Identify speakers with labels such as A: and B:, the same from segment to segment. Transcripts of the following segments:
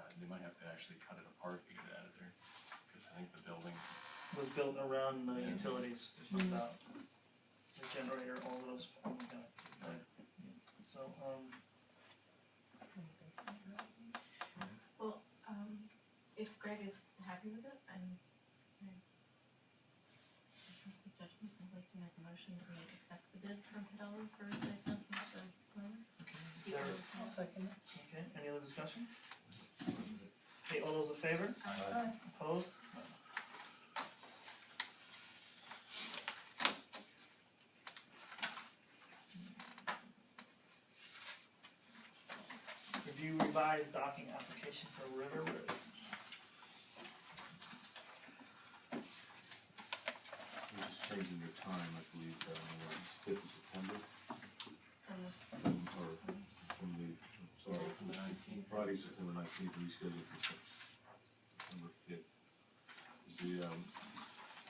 A: uh, actually cut it apart to get it out of there, cause I think the building,
B: was built around the
A: Yeah.
B: utilities, there's no doubt. The generator, all of those, oh my god,
A: Right.
B: so, um,
C: Well, um, if Greg is happy with it, I'm, I'm. I trust his judgment, I'd like to make a motion that we accept the bid from Hidalgo for replacement of the boiler.
B: is there,
D: second
B: okay, any other discussion? Okay, all those in favor, opposed? None. Review revised docking application for River Road.
E: We're just changing your time, I believe, uh, what, it's fifth of September,
C: So,
E: um, or from the, sorry, from the nineteenth, Friday, September nineteenth, rescheduled for Sep- September fifth. The, um,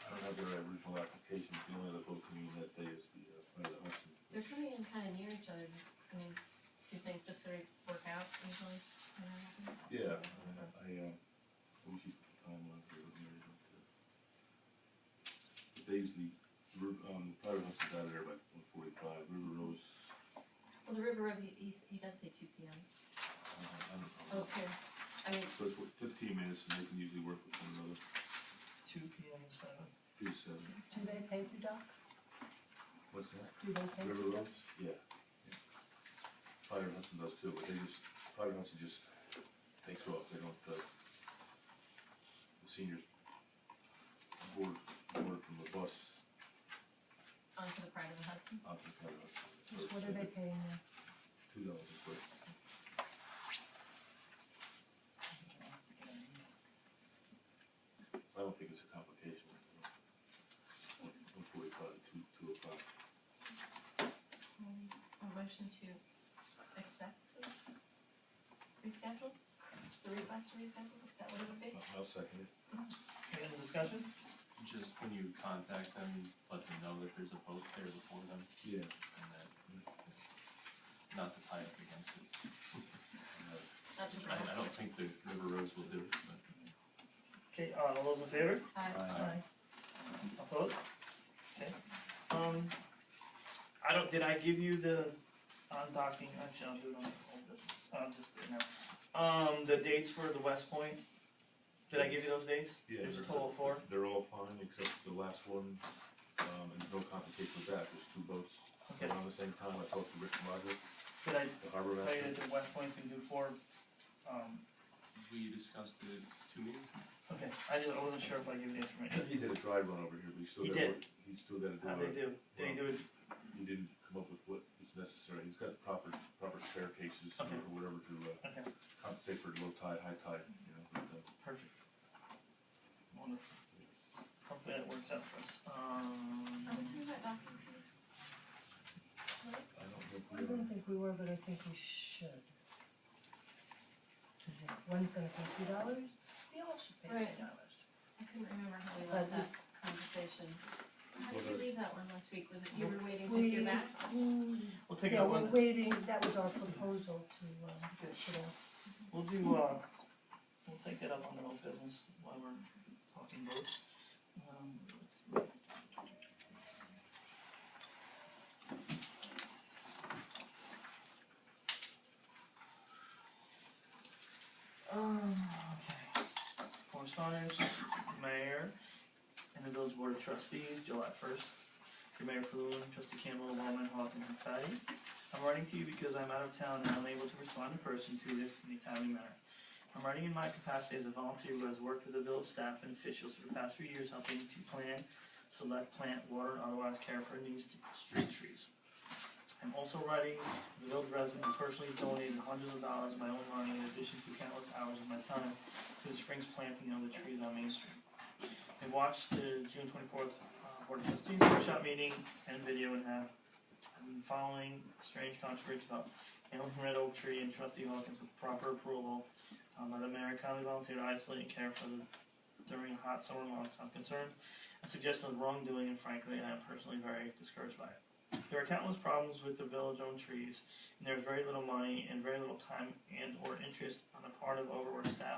E: I don't have their original application, the only other vote coming in that day is the, uh, Friday, the Hudson.
C: they're coming in kinda near each other, just, I mean, do you think just sort of work out easily? you know, nothing?
E: Yeah, I, I, uh, we keep the timeline here, but here, but, uh, the days the, Ru- um, Friday, Hudson's out of there by one forty-five, River Rose,
C: Well, the River Road, he, he's- he does say two P M.
E: uh, I don't know.
C: Okay. I mean,
E: So it's what, fifteen minutes and they can usually work with one another,
B: two P M to seven.
E: two seven.
D: Do they pay to dock?
E: What's that?
D: Do they pay
E: River
D: to dock?
E: Rose? Yeah. Fire Hudson does too, but they just, Fire Hudson just takes off, they don't, uh, the seniors board, board from the bus
C: onto the Pride of the Hudson.
E: out to the Fire Hudson. So it's,
D: Just what are
E: uh,
D: they paying them?
E: Two dollars a foot. I don't think it's a complication. One forty-five, two, two oh five.
C: Um, A motion to accept the reschedule, the request to reschedule, is that what it would be?
E: I'll- I'll second it.
B: Any other discussion?
A: just when you contact them, let them know that there's a boat there before them
E: Yeah.
A: and that, not to tie up against it.
C: Not to
A: I,
C: brag.
A: I don't think the River Rose will do it, but.
B: Okay, uh, all those in favor?
C: Aye.
B: Aye. Opposed? Okay, um, I don't, did I give you the, on docking, actually, I'll do it on the old business, i just doing it now. Um, the dates for the West Point, did I give you those dates?
E: Yeah,
B: There's a
E: they're-
B: total of four,
E: They're all fine, except the last one, um, and no complication with that, there's two boats.
B: okay,
E: Around the same time, I talked to Rick Margaret,
B: did I
E: the harbor
B: tell you
E: master.
B: that the West Point can do four? Um,
A: We discussed it two meetings ago.
B: okay, I just, I wasn't sure if I gave you the information,
E: He did a dry run over here, but he still
B: He
E: got,
B: did.
E: work- he still got to do
B: how they
E: it.
B: do, did he do it,
E: He didn't come up with what is necessary, he's got proper, proper staircases or
B: Okay.
E: whatever to, uh,
B: okay,
E: compensate for low tide, high tide, you know, but, uh,
B: perfect. Wonderful, hopefully that works out for us, um.
C: Are we talking about docking fees?
E: I don't think
D: I
E: we ever.
D: don't think we were, but I think we should. Cause if one's gonna pay two dollars, they all should pay
C: Right.
D: two dollars.
C: I couldn't remember how we left that conversation. How did we leave that one last week? Was it you were waiting to hear
D: We-
C: back?
B: We'll take out
D: Yeah, we're
B: one,
D: waiting, that was our proposal to, um, put out.
B: we'll do, uh, we'll take that up on the old business while we're talking boats. Um, Um, okay, correspondence, mayor, and the village board of trustees, July first. Your mayor Fluen, trustee Campbell, Wellman, Hawkins, and Fatty. I'm writing to you because I'm out of town and unable to respond in person to this in a timely manner. I'm writing in my capacity as a volunteer who has worked with the village staff and officials for the past few years helping to plan, select, plant, water, and otherwise care for these street trees. I'm also writing as a village resident who personally donated hundreds of dollars of my own money in addition to countless hours of my time to the spring's planting of the trees on Main Street. I watched the June twenty-fourth, uh, Board of Trustees workshop meeting and video and have I've been following strange controversy about Hamilton Red Oak Tree and trustee Hawkins with proper approval um, by the mayor and county volunteer to isolate and care for the during hot summer months. I'm concerned and suggested wrongdoing and frankly I am personally very discouraged by it. There are countless problems with the village owned trees and there's very little money and very little time and or interest on the part of overworked staff